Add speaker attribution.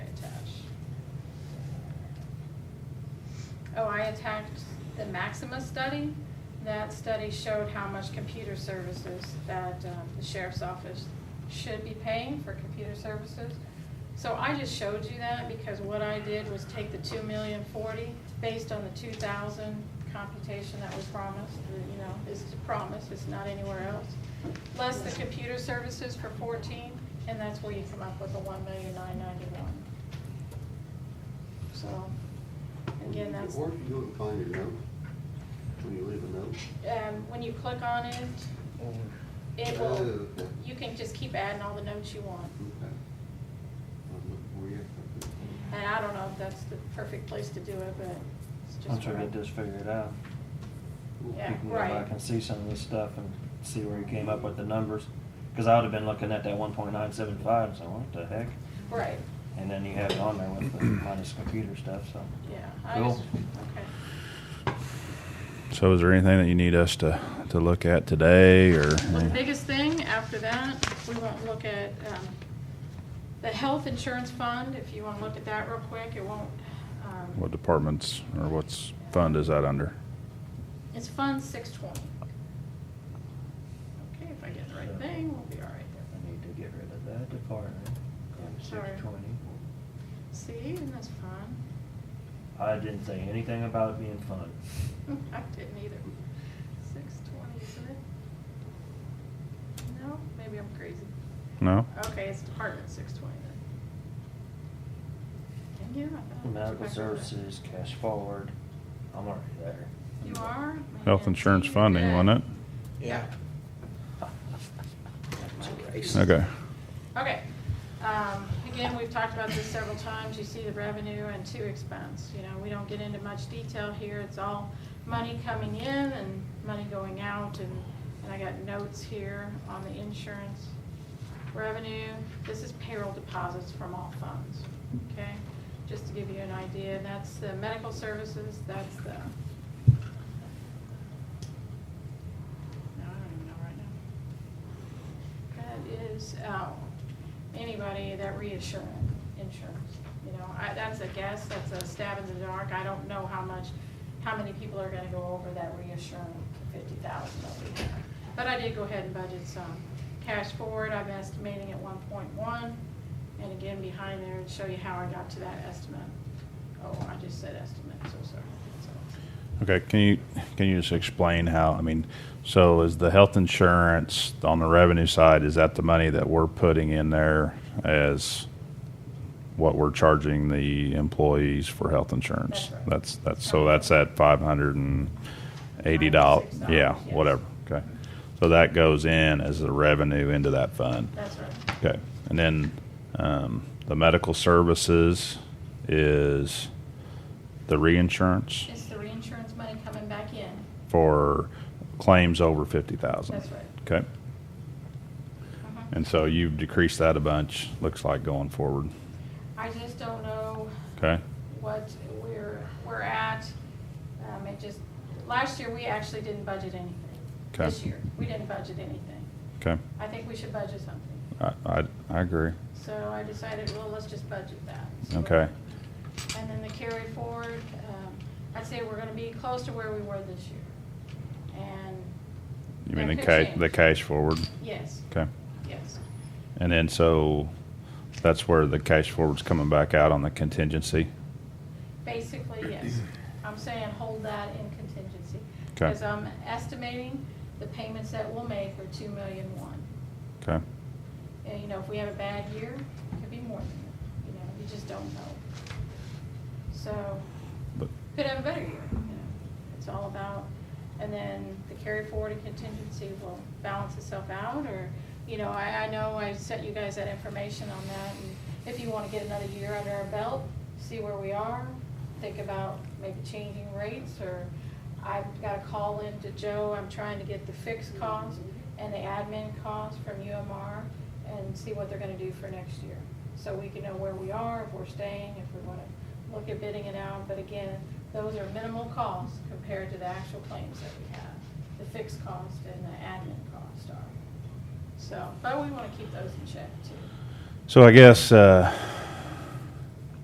Speaker 1: Oh, I attacked the Maxima study. That study showed how much computer services that um, the sheriff's office should be paying for computer services. So I just showed you that because what I did was take the two million forty based on the two thousand computation that was promised, you know, is promised, it's not anywhere else. Plus the computer services for fourteen, and that's where you come up with the one million nine ninety-one. So, again, that's.
Speaker 2: Where can you go and find a note? When you leave a note?
Speaker 1: um, when you click on it, it will,
Speaker 2: Oh, okay.
Speaker 1: you can just keep adding all the notes you want.
Speaker 2: Okay. I'll look for you. Mm-hmm.
Speaker 1: And I don't know if that's the perfect place to do it, but it's just.
Speaker 3: Once we
Speaker 1: where-
Speaker 3: get this figured out,
Speaker 2: Cool.
Speaker 3: we
Speaker 1: Yeah.
Speaker 3: can go back
Speaker 1: right.
Speaker 3: and see some of this stuff and see where you came up with the numbers. Cause I would've been looking at that one point nine seven five and saying, what the heck?
Speaker 1: Right,
Speaker 3: And then you have it on there with the minus computer stuff, so.
Speaker 1: yeah. I
Speaker 3: Cool.
Speaker 1: just- Okay.
Speaker 4: So is there anything that you need us to, to look at today or?
Speaker 1: Well, the biggest thing after that, we won't look at, um, the health insurance fund, if you wanna look at that real quick, it won't, um.
Speaker 4: What departments or what's fund is that under?
Speaker 1: It's Fund six twenty. Okay, if I get the right thing, we'll be all right there.
Speaker 3: We need to get rid of that department. Go to
Speaker 1: Sorry.
Speaker 3: 620.
Speaker 1: See, and that's fine.
Speaker 3: I didn't say anything about it being fun.
Speaker 1: I didn't either. Six twenty, isn't it? No, maybe I'm crazy.
Speaker 4: No?
Speaker 1: Okay, it's Department six twenty then. Thank you. Uh, I thought it was
Speaker 3: Medical
Speaker 1: back over.
Speaker 3: services, cash forward, I'm already there.
Speaker 1: You are?
Speaker 4: Health insurance funding, wasn't
Speaker 5: Yeah.
Speaker 4: it? Okay.
Speaker 1: Okay. Um, Again, we've talked about this several times. You see the revenue and two expense. You know, we don't get into much detail here. It's all money coming in and money going out. And and I got notes here on the insurance revenue. This is payroll deposits from all funds, okay? Just to give you an idea. And that's the medical services, that's the, no, I don't even know right now. That is, oh, anybody that reassurance, insurance, you know, I, that's a guess, that's a stab in the dark, I don't know how much, how many people are gonna go over that reassurance fifty thousand that we have. But I did go ahead and budget some cash forward, I'm estimating at one point one, and again, behind there, and show you how I got to that estimate. Oh, I just said estimate, so sorry, so.
Speaker 4: Okay, can you, can you just explain how, I mean, so is the health insurance on the revenue side, is that the money that we're putting in there as what we're charging the employees for health insurance?
Speaker 1: That's right.
Speaker 4: That's, that's, so that's at five hundred and eighty dollars,
Speaker 1: $96,
Speaker 4: yeah,
Speaker 1: yes.
Speaker 4: whatever, okay. So that goes in as the revenue into that fund,
Speaker 1: That's right.
Speaker 4: okay. And then, um, the medical services is the reinsurance?
Speaker 1: It's the reinsurance money coming back in,
Speaker 4: for claims over fifty thousand.
Speaker 1: that's right.
Speaker 4: Okay,
Speaker 1: Uh-huh.
Speaker 4: and so you've decreased that a bunch, looks like going forward,
Speaker 1: I just don't know
Speaker 4: okay?
Speaker 1: what we're, we're at. Um, it just, last year, we actually didn't budget anything.
Speaker 4: Okay.
Speaker 1: This year, we didn't budget anything.
Speaker 4: Okay,
Speaker 1: I think we should budget something.
Speaker 4: I, I, I agree,
Speaker 1: So I decided, well, let's just budget that. So-
Speaker 4: okay,
Speaker 1: And then the carry forward, um, I'd say we're gonna be close to where we were this year. And.
Speaker 4: you mean the
Speaker 1: that could
Speaker 4: ca-
Speaker 1: change.
Speaker 4: the cash forward,
Speaker 1: Yes,
Speaker 4: okay?
Speaker 1: yes.
Speaker 4: And then so, that's where the cash forward's coming back out on the contingency,
Speaker 1: Basically, yes. I'm saying hold that in contingency.
Speaker 4: Okay.
Speaker 1: Because I'm estimating the payments that we'll make are two million one.
Speaker 4: okay?
Speaker 1: And, you know, if we have a bad year, it could be more than that, you know, you just don't know. So,
Speaker 4: But,
Speaker 1: could have a better year, you know, it's all about, and then the carry forward and contingency will balance itself out, or, you know, I, I know I sent you guys that information on that, and if you wanna get another year under our belt, see where we are, think about maybe changing rates, or I've got a call in to Joe, I'm trying to get the fixed costs and the admin costs from UMR, and see what they're gonna do for next year. So we can know where we are, if we're staying, if we wanna look at bidding it out, but again, those are minimal costs compared to the actual claims that we have. The fixed cost and the admin cost are. So, but we wanna keep those in check too.
Speaker 4: so I guess, uh,